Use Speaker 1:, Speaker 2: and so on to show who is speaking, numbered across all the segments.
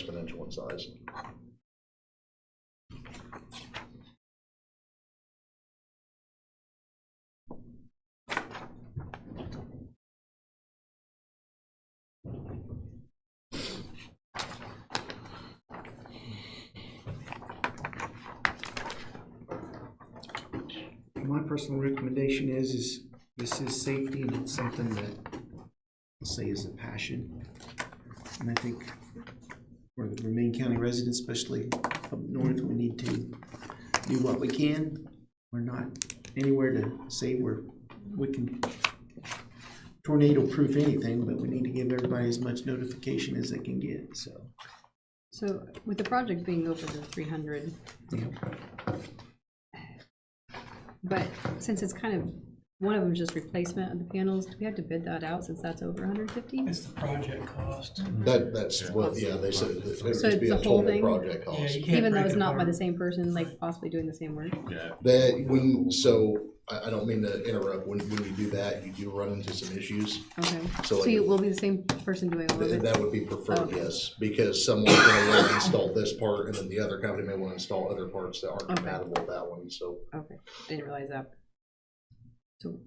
Speaker 1: exponential in size.
Speaker 2: My personal recommendation is, is this is safety and it's something that I'll say is a passion. And I think for the Remaine County residents, especially up north, we need to do what we can. We're not anywhere to say we're, we can tornado-proof anything, but we need to give everybody as much notification as they can get, so.
Speaker 3: So with the project being over the three hundred,
Speaker 2: yeah.
Speaker 3: but since it's kind of, one of them just replacement of the panels, do we have to bid that out since that's over hundred fifty?
Speaker 4: It's the project cost.
Speaker 1: That, that's what, yeah, they said it would
Speaker 3: So
Speaker 1: just be
Speaker 3: it's
Speaker 1: a
Speaker 3: the whole
Speaker 1: total
Speaker 3: thing?
Speaker 1: project
Speaker 4: Yeah,
Speaker 1: cost.
Speaker 4: you can't
Speaker 3: Even though
Speaker 4: break
Speaker 3: it's
Speaker 4: it
Speaker 3: not by the
Speaker 4: apart.
Speaker 3: same person, like possibly doing the same work?
Speaker 5: Yeah,
Speaker 1: That, when, so, I, I don't mean to interrupt, when, when you do that, you do run into some issues.
Speaker 3: Okay,
Speaker 1: So
Speaker 3: so
Speaker 1: like-
Speaker 3: you will be the same person doing all of
Speaker 1: Th-
Speaker 3: it?
Speaker 1: That would be preferred,
Speaker 3: Okay.
Speaker 1: yes, because someone's gonna wanna install this part, and then the other company may wanna install other parts that aren't
Speaker 3: Okay.
Speaker 1: compatible with that one, so.
Speaker 3: Okay, I didn't realize that. So,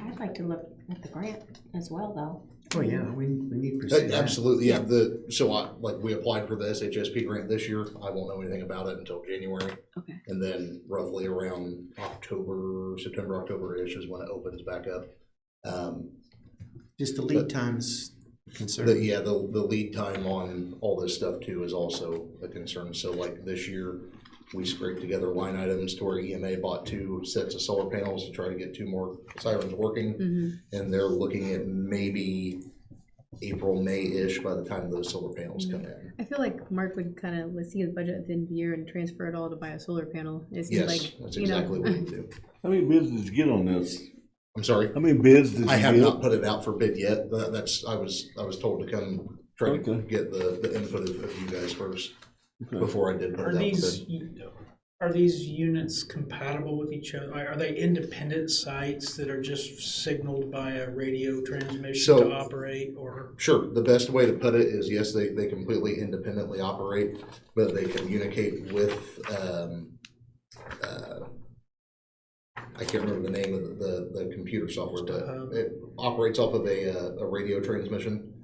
Speaker 6: I'd like to look at the grant as well, though.
Speaker 2: Oh, yeah, we, we need to pursue
Speaker 1: That-
Speaker 2: that.
Speaker 1: Absolutely, yeah, the, so I, like, we applied for the SHSP grant this year, I won't know anything about it until January.
Speaker 3: Okay.
Speaker 1: And then roughly around October, September, October-ish is when it opens back up. Um,
Speaker 2: Just the lead times concern.
Speaker 1: The, yeah, the, the lead time on all this stuff too is also a concern. So like this year, we scraped together line items to where EMA bought two sets of solar panels to try to get two more sirens working.
Speaker 3: mhm,
Speaker 1: And they're looking at maybe April, May-ish by the time those solar panels come in.
Speaker 3: I feel like Mark would kind of, let's see his budget at the end of the year and transfer it all to buy a solar panel. It seems
Speaker 1: Yes,
Speaker 3: like,
Speaker 1: that's
Speaker 3: you know,
Speaker 1: exactly what we do.
Speaker 7: How many bids did you get on this?
Speaker 1: I'm sorry,
Speaker 7: How many bids did you get?
Speaker 1: I have not put it out for bid yet. That- That's, I was, I was told to come try to
Speaker 7: Okay.
Speaker 1: get the, the input of of you guys first
Speaker 7: Okay.
Speaker 1: before I did put it
Speaker 4: Are
Speaker 1: out for bid.
Speaker 4: these, are these units compatible with each other? Are they independent sites that are just signaled by a radio transmission
Speaker 1: So-
Speaker 4: to operate or?
Speaker 1: Sure, the best way to put it is, yes, they, they completely independently operate, but they communicate with, um, uh, I can't remember the name of the, the, the computer software,
Speaker 4: Um,
Speaker 1: but it operates off of a, uh, a radio transmission.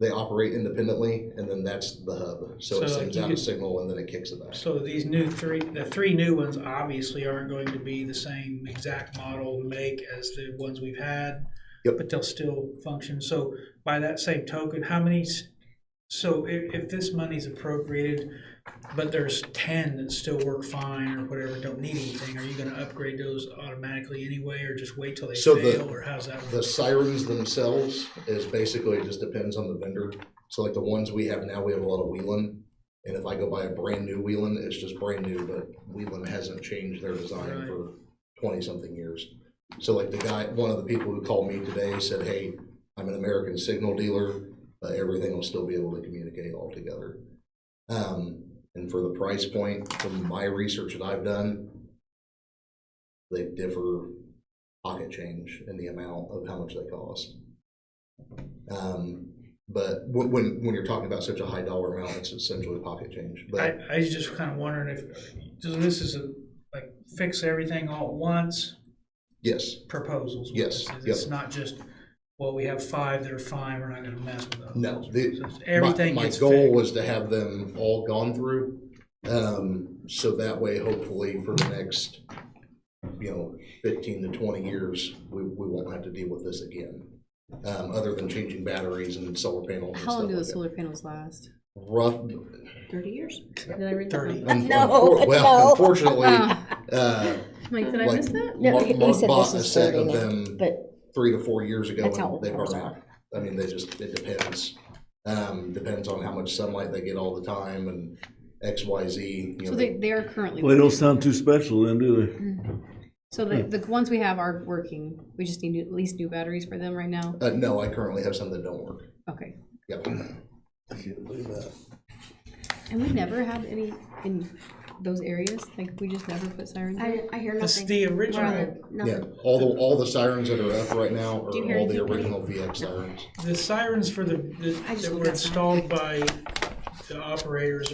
Speaker 1: They operate independently, and then that's the hub, so
Speaker 4: So,
Speaker 1: it
Speaker 4: like,
Speaker 1: sends
Speaker 4: you
Speaker 1: out a
Speaker 4: could-
Speaker 1: signal and then it kicks it back.
Speaker 4: So these new three, the three new ones obviously aren't going to be the same exact model make as the ones we've had.
Speaker 1: Yep.
Speaker 4: But they'll still function. So by that same token, how many, s- so if, if this money's appropriated, but there's ten that still work fine or whatever, don't need anything, are you gonna upgrade those automatically anyway or just wait till they
Speaker 1: So the-
Speaker 4: fail or how's that? work?
Speaker 1: The sirens themselves is basically, it just depends on the vendor. So like the ones we have now, we have a lot of Wheelan. And if I go buy a brand new Wheelan, it's just brand new, but Wheelan hasn't changed their design
Speaker 4: Right.
Speaker 1: for twenty something years. So like the guy, one of the people who called me today said, hey, I'm an American signal dealer, uh, everything will still be able to communicate all together. Um, and for the price point, from my research that I've done, they differ pocket change in the amount of how much they cost. Um, but when, when, when you're talking about such a high dollar amount, it's essentially pocket change,
Speaker 4: I,
Speaker 1: but
Speaker 4: I was just kind of wondering if, so this is a, like fix everything all at once,
Speaker 1: yes.
Speaker 4: proposals. with
Speaker 1: Yes,
Speaker 4: this. It's not just, well, we have five that are fine, we're not gonna mess with those.
Speaker 1: No, the-
Speaker 4: So it's-
Speaker 1: My-
Speaker 4: Everything
Speaker 1: My
Speaker 4: gets
Speaker 1: goal
Speaker 4: fixed.
Speaker 1: was to have them all gone through, um, so that way hopefully for the next, you know, fifteen to twenty years, we, we won't have to deal with this again. Um, other than changing batteries and solar panels and
Speaker 3: how long do the
Speaker 1: stuff like that.
Speaker 3: solar panels last?
Speaker 1: Rough.
Speaker 6: Thirty years?
Speaker 3: Did I read that?
Speaker 4: Thirty.
Speaker 1: un-
Speaker 6: No,
Speaker 1: unfor- Well,
Speaker 6: no.
Speaker 1: unfortunately,
Speaker 3: Wow.
Speaker 1: uh,
Speaker 3: I'm Like, did I
Speaker 1: like,
Speaker 3: miss that?
Speaker 6: No,
Speaker 1: Mark
Speaker 6: he- he
Speaker 1: Mark
Speaker 6: said
Speaker 1: bought
Speaker 6: this
Speaker 1: a
Speaker 6: is
Speaker 1: set of
Speaker 6: 30 now,
Speaker 1: them
Speaker 6: But
Speaker 1: three to four years ago,
Speaker 6: That's how
Speaker 1: and
Speaker 6: old
Speaker 1: they burn
Speaker 6: cars
Speaker 1: out. I mean, they just, it depends. Um, depends on how much sunlight they get all the time and X, Y, Z, you
Speaker 3: So
Speaker 1: know.
Speaker 3: they, they are currently.
Speaker 7: Well, they don't sound too special then, do they?
Speaker 3: So the,
Speaker 1: Hmm.
Speaker 3: the ones we have are working. We just need at least new batteries for them right now.
Speaker 1: Uh, no, I currently have some that don't work.
Speaker 3: Okay.
Speaker 1: Yep.
Speaker 3: And we never had any in those areas. Like we just never put sirens. in?
Speaker 6: I, I hear
Speaker 4: This
Speaker 6: nothing.
Speaker 4: is the
Speaker 6: We're on
Speaker 4: original,
Speaker 6: the-
Speaker 1: Yeah,
Speaker 6: nothing.
Speaker 1: all the, all the sirens that are up right now
Speaker 6: Do you
Speaker 1: are
Speaker 6: hear
Speaker 1: all the
Speaker 6: anything?
Speaker 1: original VX sirens.
Speaker 4: the sirens for the, the-
Speaker 6: I just
Speaker 4: that
Speaker 6: looked
Speaker 4: were
Speaker 6: outside.
Speaker 4: installed by the operators